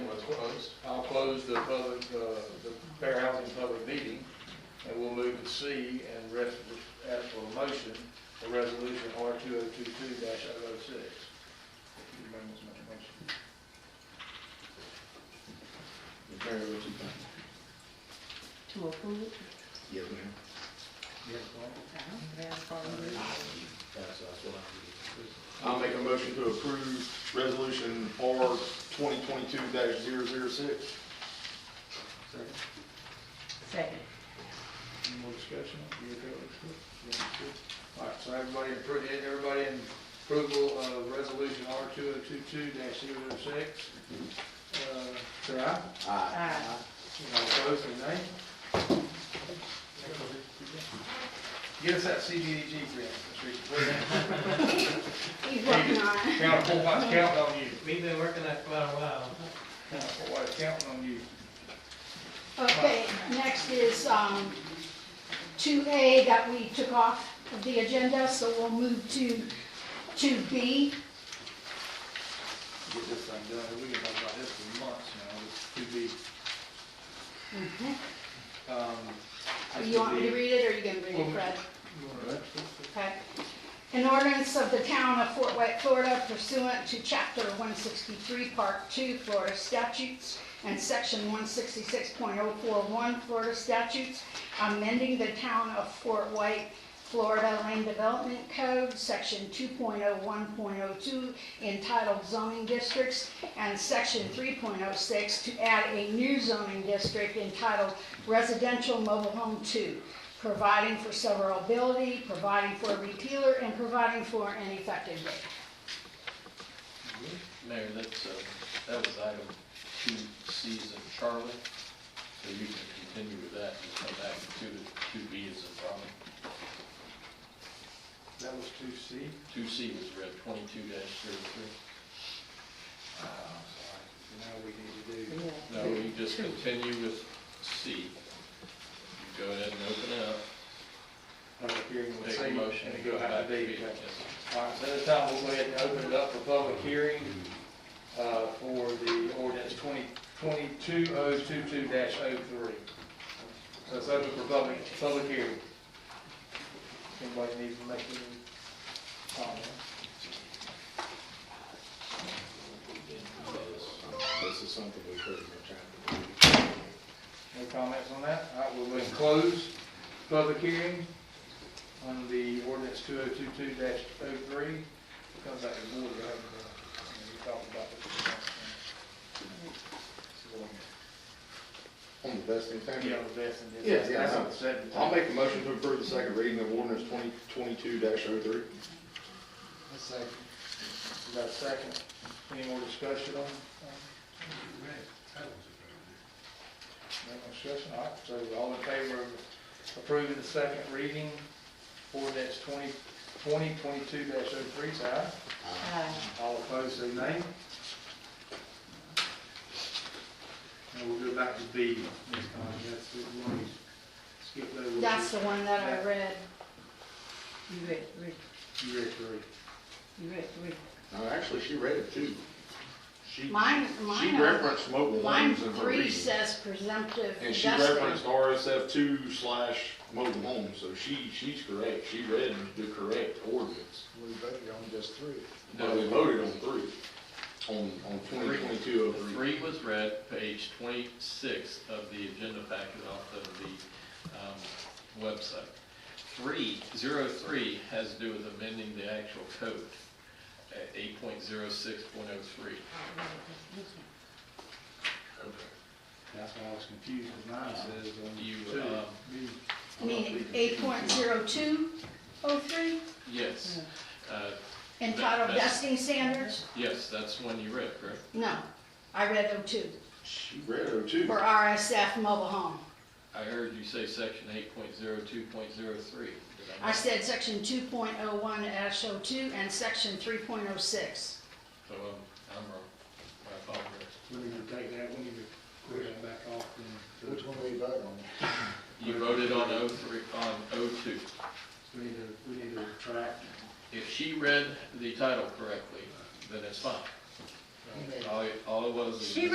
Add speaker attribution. Speaker 1: close the public, uh, the fair housing public meeting, and we'll move to C and rest, ask for a motion for resolution R two oh two two dash oh oh six. Remember my motion.
Speaker 2: Mayor, what you think?
Speaker 3: To approve?
Speaker 2: Yes, ma'am.
Speaker 1: Yes, Paul?
Speaker 2: That's, that's what I I'll make a motion to approve resolution R twenty twenty-two dash zero zero six.
Speaker 1: Second.
Speaker 3: Second.
Speaker 1: Any more discussion? You okay with this? You understood? All right, so everybody, appro- everybody in approval of resolution R two oh two two dash zero six? Uh, Say aye.
Speaker 2: Aye.
Speaker 3: Aye.
Speaker 1: All opposed, say nay. Get us that CDBG grant, Mr. Reed.
Speaker 4: He's working on it.
Speaker 1: Count, whole lot counting on you.
Speaker 5: We've been working that for a while.
Speaker 1: Count, whole lot counting on you.
Speaker 4: Okay, next is, um, two A that we took off of the agenda, so we'll move to two B.
Speaker 1: Get this thing done. We've been talking about this for months now. It's too big.
Speaker 5: Mm-hmm.
Speaker 1: Um, has
Speaker 4: You want me to
Speaker 1: be-
Speaker 4: read it, or you gonna read it, Fred?
Speaker 1: You want to read it?
Speaker 4: Okay. An ordinance of the town of Fort White, Florida pursuant to chapter one sixty-three, part two Florida statutes and section one sixty-six point oh four one Florida statutes, amending the town of Fort White, Florida Land Development Code, section two point oh one point oh two entitled zoning districts, and section three point oh six to add a new zoning district entitled residential mobile home two providing for severability, providing for a repealer, and providing for an effective date.
Speaker 6: Mayor, that's, uh, that was item two C's of Charlie, so you can continue with that and come back to two, two B is in Robin.
Speaker 1: That was two C.
Speaker 6: Two C was read twenty-two dash thirty-three.
Speaker 1: Oh, sorry. Now we need to do.
Speaker 6: No, you just continue with C. You Go ahead and open it up,
Speaker 1: Public hearing with
Speaker 6: make
Speaker 1: C.
Speaker 6: a motion.
Speaker 1: And
Speaker 6: go
Speaker 1: go
Speaker 6: back
Speaker 1: out
Speaker 6: to
Speaker 1: to
Speaker 6: B.
Speaker 1: D.
Speaker 6: Yes,
Speaker 1: All right, so this time we'll go ahead and open it up for public hearing uh, for the ordinance 2022-022-03. So it's open for public, public hearing. Anybody needs to make any comments?
Speaker 2: This is something we could have been
Speaker 1: No comments on that? All right, we'll go ahead and close public hearing on the ordinance 2022-03. Comes back to the board, right? And we talked about this.
Speaker 2: On the best intent.
Speaker 1: Yeah, that's in
Speaker 2: Yeah,
Speaker 1: this.
Speaker 2: yeah,
Speaker 1: That's
Speaker 2: no.
Speaker 1: on the seventh.
Speaker 2: I'll make a motion to approve the second reading of ordinance twenty twenty-two dash oh three.
Speaker 1: A second. We got a second. Any more discussion on? on- No more discussion, all right, so all in favor of approving the second reading, ordinance twenty, twenty twenty-two dash oh three, say aye.
Speaker 3: Aye.
Speaker 1: All opposed, say nay. And we'll go back to B next time, that's, it. we'll skip over.
Speaker 4: That's the one that I read.
Speaker 3: You read, read,
Speaker 1: You read three.
Speaker 3: you read, read.
Speaker 2: No, actually, she read it too. She,
Speaker 4: Mine,
Speaker 2: she
Speaker 4: mine,
Speaker 2: referenced mobile
Speaker 4: line
Speaker 2: homes in her
Speaker 4: three
Speaker 2: reading.
Speaker 4: says presumptive
Speaker 2: And she
Speaker 4: vesting.
Speaker 2: referenced RSF two slash mobile homes, so she, she's correct. She read the correct ordinance.
Speaker 7: We voted on just three.
Speaker 2: But we voted on three, on, on twenty twenty-two
Speaker 6: The
Speaker 2: oh three.
Speaker 6: three was read, page twenty-six of the agenda packet off of the um, website. Three, zero three has to do with amending the actual code, uh, eight point zero six point oh three.
Speaker 1: That's why I was confused, because mine says on
Speaker 6: You,
Speaker 1: two.
Speaker 6: um,
Speaker 1: B.
Speaker 4: I mean, eight point zero two oh three
Speaker 6: Yes, Uh,
Speaker 4: entitled
Speaker 6: That's-
Speaker 4: vesting standards?
Speaker 6: yes, that's one you read, correct?
Speaker 4: No, I read them too,
Speaker 2: She read oh two.
Speaker 4: for RSF mobile home.
Speaker 6: I heard you say section eight point zero two point zero three.
Speaker 4: I said section two point oh one dash oh two and section three point oh six.
Speaker 6: So um, I'm wrong. I apologize.
Speaker 1: We need to take that, we need to put that back off then.
Speaker 7: Which one we vote on?
Speaker 6: You voted on O three, on O two.
Speaker 1: We need to, we need to retract.
Speaker 6: If she read the title correctly, then it's fine. All, all it was is.
Speaker 3: She